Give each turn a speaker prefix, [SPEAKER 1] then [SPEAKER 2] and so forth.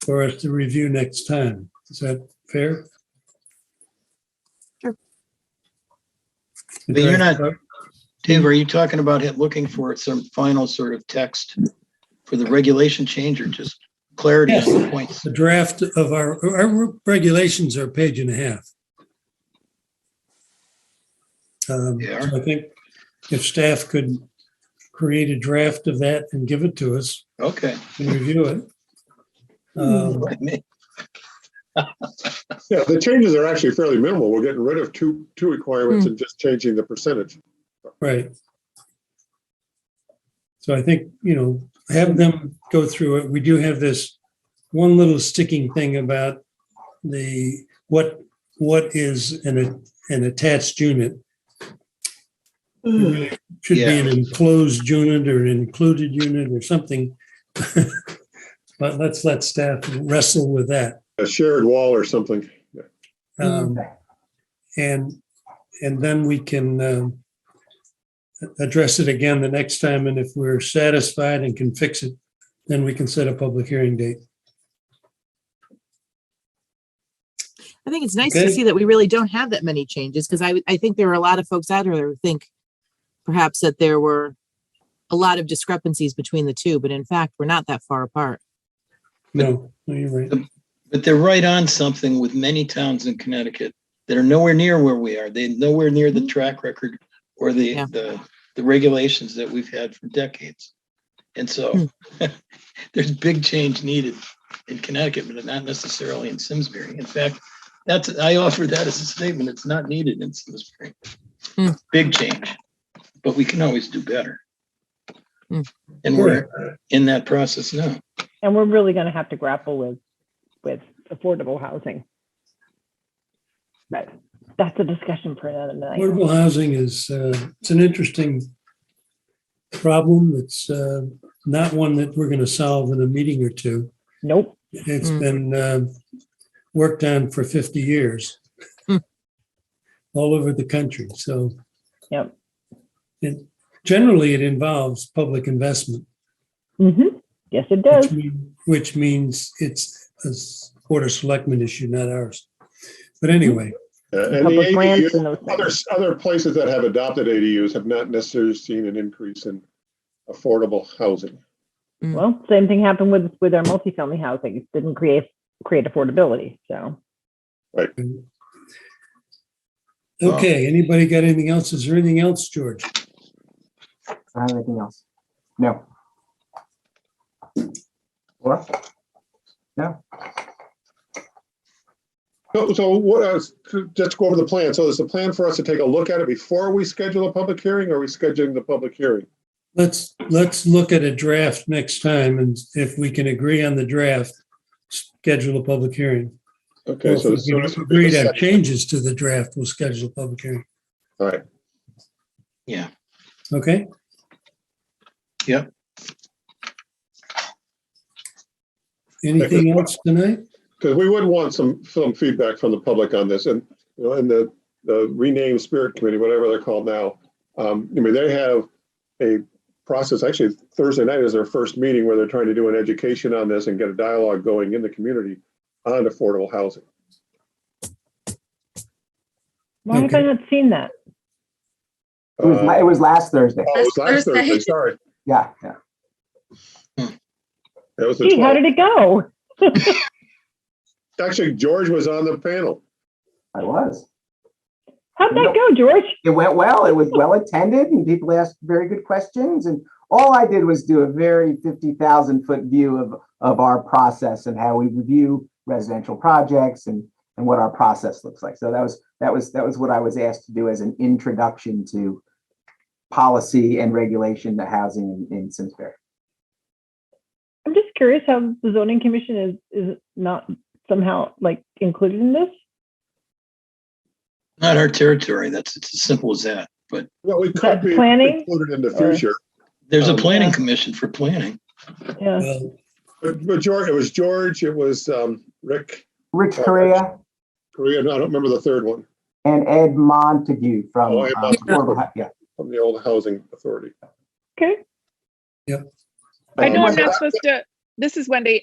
[SPEAKER 1] for us to review next time. Is that fair?
[SPEAKER 2] Sure.
[SPEAKER 3] But you're not- Dave, are you talking about it, looking for some final sort of text for the regulation change or just clarity on the points?
[SPEAKER 1] The draft of our, our regulations are a page and a half. Um,
[SPEAKER 3] They
[SPEAKER 1] so I think if staff could create a draft of that and give it to us
[SPEAKER 3] Okay.
[SPEAKER 1] and review it. Um,
[SPEAKER 4] Yeah, the changes are actually fairly minimal. We're getting rid of two, two
[SPEAKER 5] Hmm.
[SPEAKER 4] requirements and just changing the percentage.
[SPEAKER 1] Right. So I think, you know, have them go through it. We do have this one little sticking thing about the, what, what is an, an attached unit? It really Should be an enclosed unit or an included unit or something. But let's let staff wrestle with that.
[SPEAKER 4] A shared wall or something.
[SPEAKER 1] Um, And, and then we can um, a- address it again the next time, and if we're satisfied and can fix it, then we can set a public hearing date.
[SPEAKER 2] I think it's nice
[SPEAKER 1] Okay.
[SPEAKER 2] to see that we really don't have that many changes because I would- I think there are a lot of folks out there who think perhaps that there were a lot of discrepancies between the two, but in fact, we're not that far apart.
[SPEAKER 1] No, no, you're right.
[SPEAKER 3] But they're right on something with many towns in Connecticut that are nowhere near where we are. They're nowhere near the track record or the,
[SPEAKER 2] Mm-hmm. Yeah.
[SPEAKER 3] the, the regulations that we've had for decades. And so
[SPEAKER 2] Hmm.
[SPEAKER 3] there's big change needed in Connecticut, but not necessarily in Simsbury. In fact, that's, I offer that as a statement. It's not needed in Simsbury.
[SPEAKER 2] Hmm.
[SPEAKER 3] Big change, but we can always do better.
[SPEAKER 2] Hmm.
[SPEAKER 3] And we're in that process now.
[SPEAKER 5] And we're really going to have to grapple with, with affordable housing. But that's a discussion for another night.
[SPEAKER 1] Affordable housing is, uh, it's an interesting problem. It's uh, not one that we're going to solve in a meeting or two.
[SPEAKER 5] Nope.
[SPEAKER 1] It's
[SPEAKER 2] Mm.
[SPEAKER 1] been uh, worked on for 50 years
[SPEAKER 2] Hmm.
[SPEAKER 1] all over the country, so.
[SPEAKER 5] Yep.
[SPEAKER 1] It, generally, it involves public investment,
[SPEAKER 5] hmm Yes, it does.
[SPEAKER 1] which mean- which means it's a s- Board of Selectmen issue, not ours. But anyway,
[SPEAKER 4] Uh, And the
[SPEAKER 5] Public lands
[SPEAKER 4] ADU,
[SPEAKER 5] and those
[SPEAKER 4] other,
[SPEAKER 5] things.
[SPEAKER 4] other places that have adopted ADUs have not necessarily seen an increase in affordable housing.
[SPEAKER 5] Well, same thing happened with, with our multifamily housing. It didn't create, create affordability. So
[SPEAKER 1] okay, anybody got anything else? Is there anything else, George?
[SPEAKER 6] I don't have anything else. No. Laura?
[SPEAKER 4] So, so what, uh, just go over the plan. So there's a plan for us to take a look at it before we schedule a public hearing or are we scheduling the public hearing?
[SPEAKER 1] Let's, let's look at a draft next time, and if we can agree on the draft, schedule a public hearing.
[SPEAKER 4] Okay,
[SPEAKER 1] Well,
[SPEAKER 4] so.
[SPEAKER 1] If
[SPEAKER 4] so
[SPEAKER 1] we
[SPEAKER 4] this
[SPEAKER 1] can
[SPEAKER 4] would be
[SPEAKER 1] agree
[SPEAKER 4] the
[SPEAKER 1] to have
[SPEAKER 4] second-
[SPEAKER 1] changes to the draft, we'll schedule a public hearing.
[SPEAKER 4] All right,
[SPEAKER 3] Yeah.
[SPEAKER 1] Okay?
[SPEAKER 3] Yep.
[SPEAKER 1] Anything else tonight?
[SPEAKER 4] because we would want some, some feedback from the public on this and, you know, and the, the renamed spirit committee, whatever they're called now. Um, I mean, they have a process, actually Thursday night is their first meeting where they're trying to do an education on this and get a dialogue going in the community on affordable housing.
[SPEAKER 5] why have I not seen that?
[SPEAKER 6] It was, la-
[SPEAKER 4] Uh,
[SPEAKER 6] it was last Thursday.
[SPEAKER 4] Oh, it was last Thursday, sorry.
[SPEAKER 6] Yeah, yeah.
[SPEAKER 4] That was the
[SPEAKER 5] Gee, how
[SPEAKER 4] 12th.
[SPEAKER 5] did it go?
[SPEAKER 4] Actually, George was on the panel.
[SPEAKER 6] I was.
[SPEAKER 5] How'd that go, George?
[SPEAKER 6] It went well. It was well attended and people asked very good questions. And all I did was do a very 50,000 foot view of, of our process and how we review residential projects and, and what our process looks like. So that was, that was, that was what I was asked to do as an introduction to policy and regulation to housing in, in Simsbury.
[SPEAKER 5] I'm just curious how the zoning commission is, is not somehow like included in this.
[SPEAKER 3] Not our territory. That's, it's as simple as that. But
[SPEAKER 4] Well, we could
[SPEAKER 5] But
[SPEAKER 4] be
[SPEAKER 5] planning?
[SPEAKER 4] included in the
[SPEAKER 5] Or-
[SPEAKER 4] future.
[SPEAKER 3] there's a
[SPEAKER 4] Um,
[SPEAKER 3] planning
[SPEAKER 5] Yeah.
[SPEAKER 3] commission for planning.
[SPEAKER 5] Yeah.
[SPEAKER 1] Well,
[SPEAKER 4] But, but George, it was George, it was um, Rick
[SPEAKER 6] Rich
[SPEAKER 4] Oh,
[SPEAKER 6] Correa.
[SPEAKER 4] Korea, no, I don't remember the third one,
[SPEAKER 6] and Ed Montague from,
[SPEAKER 4] Oh, Ed
[SPEAKER 6] um, Affordable Hu- yeah.
[SPEAKER 4] from the old housing authority.
[SPEAKER 5] Okay.
[SPEAKER 4] Um,
[SPEAKER 7] I know I'm
[SPEAKER 4] but-
[SPEAKER 7] not supposed to, this is Wendy.